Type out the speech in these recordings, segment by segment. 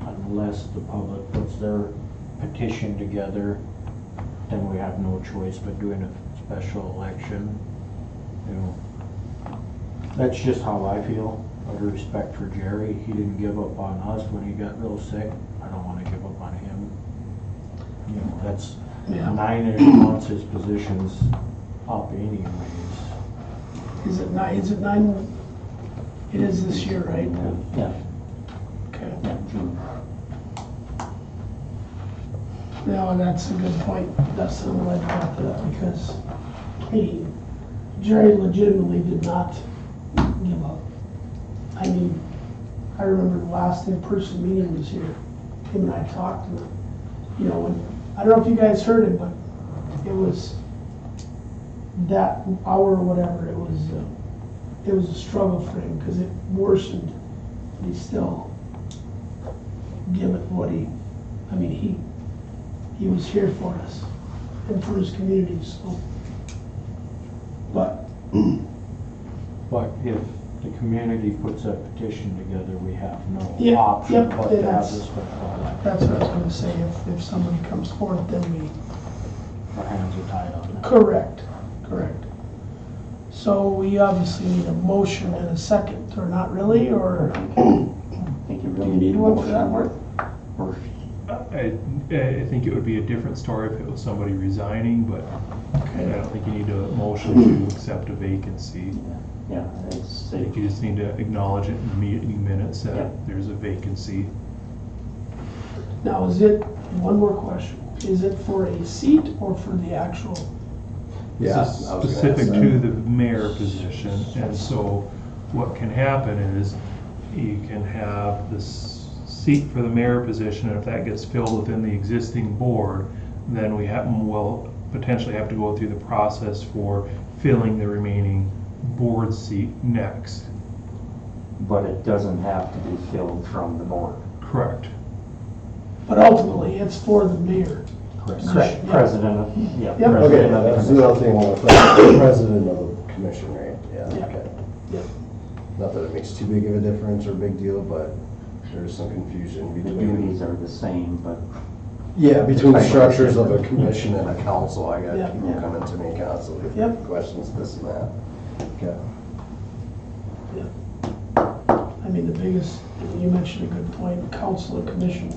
unless the public puts their petition together, then we have no choice but doing a special election, you know. That's just how I feel, out of respect for Jerry, he didn't give up on us when he got real sick, I don't wanna give up on him. You know, that's Yeah. nine-ish months his position's up anyways. Is it nine, is it nine? It is this year, right? Yeah. Okay. No, and that's a good point, Dustin, I'm glad you brought that up, because he, Jerry legitimately did not give up. I mean, I remember the last in-person meeting was here, him and I talked, and, you know, when, I don't know if you guys heard it, but it was that hour or whatever, it was, uh, it was a struggle for him, because it worsened, but he still give it what he, I mean, he, he was here for us and for his community, so. But, But if the community puts a petition together, we have no Yeah, option yep, but to have that's- this before election. that's what I was gonna say, if, if someone comes forth, then we. Our hands are tied on that. Correct, correct. So we obviously need a motion and a second, or not really, or, Think you Do you need one for that work? I, I think it would be a different story if it was somebody resigning, but I okay, don't think you need a motion to accept a vacancy. Yeah, it's, I think you just need to acknowledge it in the meeting minutes Yeah. that there's a vacancy. now is it, one more question, is it for a seat or for the actual? This is I was gonna Specific ask to the mayor position, and so what can happen is you can have this seat for the mayor position, and if that gets filled within the existing board, then we have, will potentially have to go through the process for filling the remaining board seat next. but it doesn't have to be filled from the board. Correct. But ultimately, it's for the mayor. Correct. President of, yeah. Yep. president Okay, of the that's commission. the other thing, well, the president of the commission, right? Yeah, Yeah. okay. Yeah. Not that it makes too big of a difference or big deal, but there's some confusion The between. duties are the same, but Yeah, between the Right. structures of a commission and a council, I Yeah. got people coming to me constantly, Yep. with questions, this and that. Okay. I mean, the biggest, you mentioned a good point, council and commission.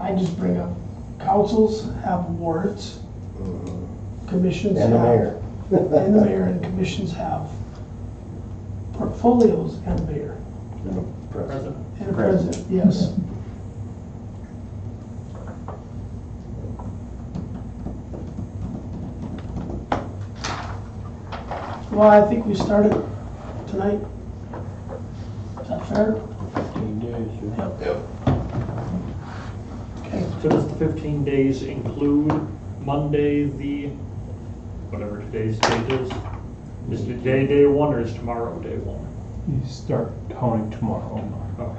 I just bring up, councils have wards, commissions have. And the mayor. And the mayor and commissions have portfolios and a mayor And the president. and a president, yes. Well, I think we started tonight. Is that fair? Fifteen days, yeah. Okay. So does the fifteen days include Monday, the, whatever today's date is? Is today day one or is tomorrow day one? You start counting tomorrow. Okay.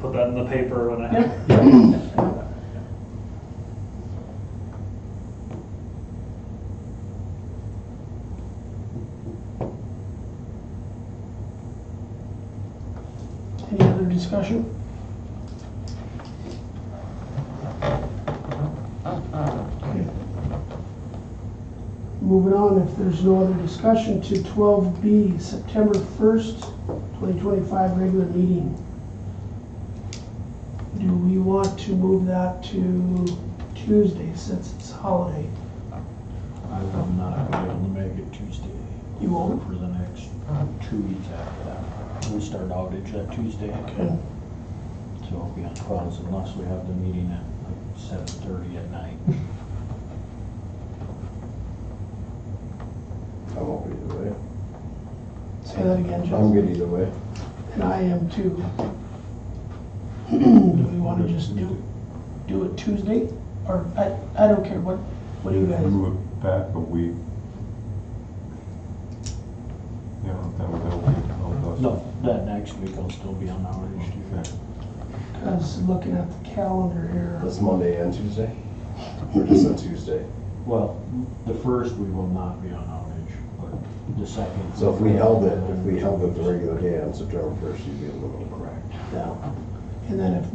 Put that in the paper when I, Yep. Any other discussion? Okay. Moving on, if there's no other discussion, to twelve B, September first, twenty twenty-five, regular meeting. Do we want to move that to Tuesday since it's holiday? I will not be able to make it Tuesday. You won't? For the next two weeks after that. We start outage that Tuesday. Okay. So it'll be on twelve unless we have the meeting at like seven thirty at night. I won't be either way. Say that again, I'm Jeff. good either way. And I am too. Do we want to just do, do it Tuesday? Or, I, I don't care, what, what do you guys? Move it back a week. Yeah, that would help you, help us. No, that next week I'll still be on outage too. Because looking at the calendar here, That's Monday and Tuesday? Or just on Tuesday? Well, the first we will not be on outage, but the second. So if we held it, if we held it the regular day on September first, you'd be able to. Correct. yeah. and then if